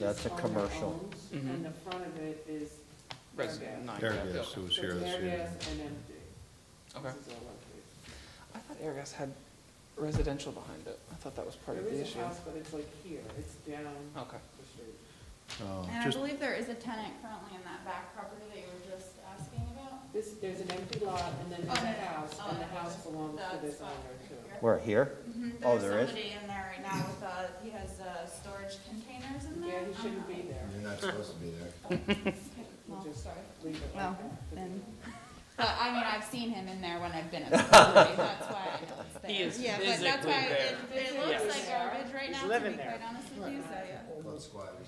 That's is a on their commercial. homes, and the front of it is their Res- gas. nine. Paragraphs, Okay. it was So here it's this their year. gas and empty. Okay. This is all empty. I thought Airgas had residential behind it. I thought that was part of There the is issue. a house, but it's like here, it's down Okay. the street. Oh, And I just- believe there is a tenant currently in that back property that you were just asking about. This, there's an empty lot and then Oh, there's no, a no. house, Oh, and the no, house that's- belongs to that's this fine, owner right too. here. Where, here? Mhm, Oh, There's there is? somebody in there right now with, uh, he has, uh, storage containers in Yeah, there. he I shouldn't don't be know. there. You're not supposed to be there. Okay, We'll well, just sorry. leave it Well, like that. then, but I mean, I've seen him in there when I've been at the property, that's why I know it's there. He is Yeah, but that's physically why it, there. it Yes. looks like garbage right now, to be quite honest with you, so, yeah. Blood squatters.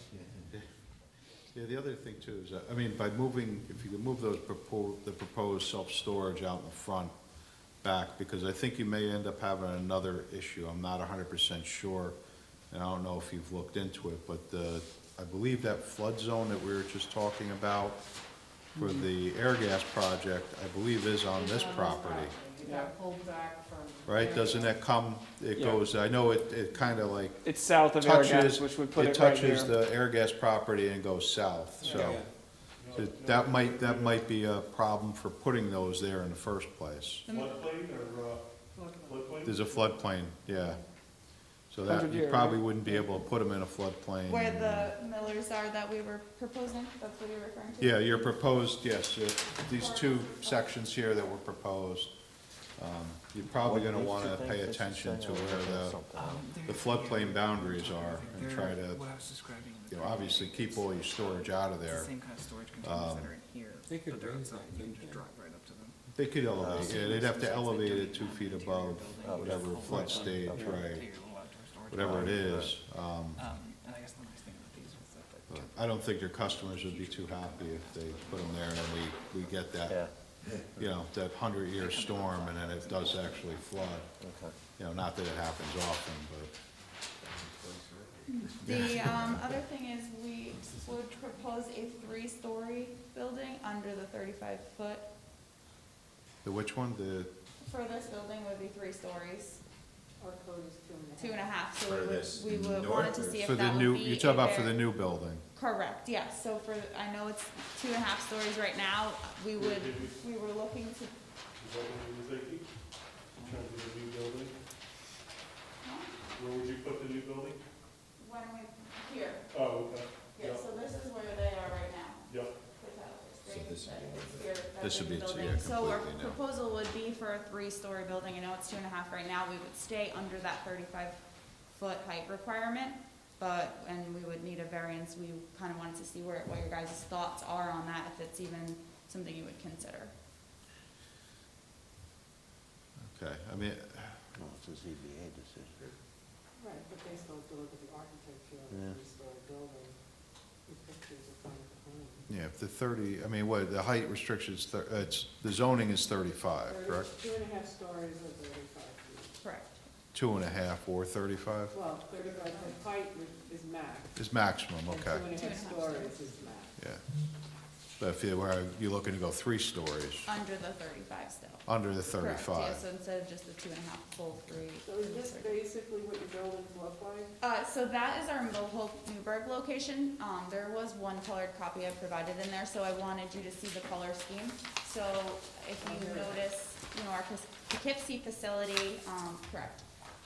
Yeah, the other thing too is, that- I mean, by moving, if you could move those proposed, the proposed self-storage out in the front back, because I think you may end up having another issue, I'm not hundred percent sure, and I don't know if you've looked into it, but, uh, I believe that flood zone that we were just talking about for the air gas project, I believe is on It's this property. It got pulled back from. Right, doesn't that come, it Yeah. goes, I know it, it kinda like It's south of touches, Airgas, which would put it it right touches here. the air gas property and goes south, so. it- That might, that might be a problem for putting those there in the first place. Floodplain or, uh, floodplain? There's a floodplain, yeah. So that, Hundred you year, probably right? wouldn't be able to put them in a floodplain. Where the millers are that we were proposing, that's what you're referring to? Yeah, your proposed, yes, your- these two sections here that were proposed, um, you're probably gonna wanna pay attention to Um, where the, the floodplain boundaries are and try to, What I was describing in the. you know, obviously keep all your storage out of It's there. the same kind of storage containers that Um, are in here, but they're outside, you can just drive right up to them. They could elevate, yeah, they'd have to elevate it two feet above Uh, whatever flood Take stage, right, your little outdoor storage. whatever it is. Um, Um, and I guess the nice thing about these was that the but I don't think their customers would be too happy if they put them there and then we, we get Yeah, that, you know, that hundred-year storm and then it does actually flood. okay. You know, not that it happens often, but. The, um, other thing is we would propose a three-story building under the thirty-five foot. The which one, the, Furthest building would be three stories, Our code is two and a half, so we would, Furthest we would, north wanted or- to see if for the that would be. new, you're talking a about for the very- new building? Correct, yes, so for, I know it's two and a half stories right now, we would, we were looking to, Is that what you were thinking? In terms of the new building? Where would you put the new building? when we, here, Oh, okay. here, so this is where they are right now. Yep. the towers. So this would be- It's here, that's This would in be- the yeah, building. So our completely new. proposal would be for a three-story building, I know it's two and a half right now, we would stay under that thirty-five foot height requirement, but, and we would need a variance, we kind of wanted to see where, what your guys' thoughts are on that, if it's even something you would consider. Okay, I mean, No, it's a ZBA decision. Right, but they still have to look at the architecture of Yeah. the three-story building, the pictures of front of the home. yeah, if the thirty, I mean, what, the height restriction's, thir- uh, it's, the zoning is thirty-five, Thirty- Uh, correct? Two and a half stories or thirty-five feet. Correct. Two and a half or thirty-five Well, thirty-five, the height re- is max. is maximum, and okay, Two and a Two and a half half stories is max. yeah. But if you were, you're looking to go three stories, Under the thirty-five still. under the Uh, Correct, thirty-five. Yeah, so instead of just the two and a half, full three. So is this basically what your buildings look like? Uh, so that is our Mohawk Newburgh location. Um, there was one colored copy I provided in there, so I wanted you to see the color scheme. So if you notice, you know, our Pis- Poughkeepsie facility, um, correct.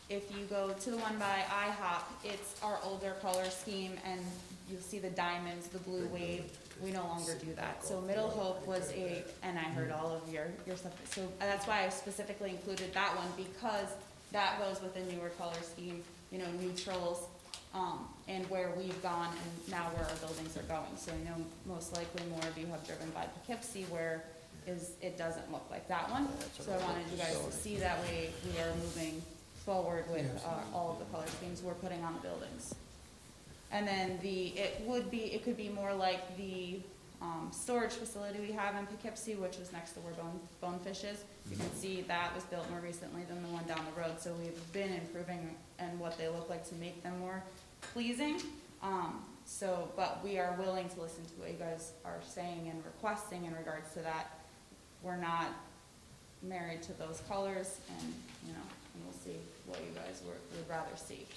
If you go to the one by IHOP, it's our older color scheme and you'll see the diamonds, the blue wave. We no longer do that. So Middle Hope was a, and I heard all of your, your stuff. So uh, that's why I specifically included that one because that goes with a newer color scheme, you know, neutrals, um, and where we've gone and now where our buildings are going. So I know most likely more of you have driven by Poughkeepsie where is, it doesn't look like that one. So I wanted you guys to see that we, we are moving forward with, uh, all of the color schemes we're putting on the buildings. And then the, it would be, it could be more like the, um, storage facility we have in Poughkeepsie, which was next to where Bone, Bonefish is. You can see that was built more recently than the one down the road, so we've been improving and what they look like to make them more pleasing. Um, so, but we are willing to listen to what you guys are saying and requesting in regards to that. We're not married to those colors and, you know, and we'll see what you guys would, would rather see.